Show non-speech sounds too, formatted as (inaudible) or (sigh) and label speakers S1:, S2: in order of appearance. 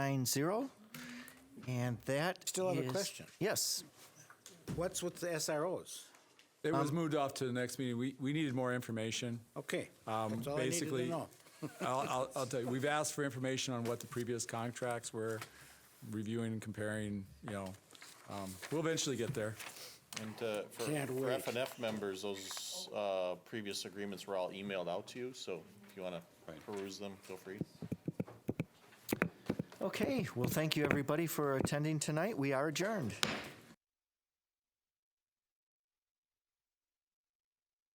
S1: 990. And that
S2: Still have a
S1: is-
S2: question.
S1: Yes.
S2: What's with the SROs?
S3: It
S2: Um,
S3: was moved off to the next meeting. We, we needed more information.
S2: Okay, uh,
S3: Um,
S2: that's all I needed
S3: basically-
S2: to know.
S3: (laughs) I'll, I'll, I'll tell you, we've asked for information on what the previous contracts were, reviewing and comparing, you know. Um, We'll eventually get there.
S4: And uh, for
S2: Can't
S4: for
S2: wait.
S4: F and F members, those uh, previous agreements were all emailed out to you, so if you want to peruse them, feel free.
S1: Okay, well, thank you, everybody, for attending tonight. We are adjourned.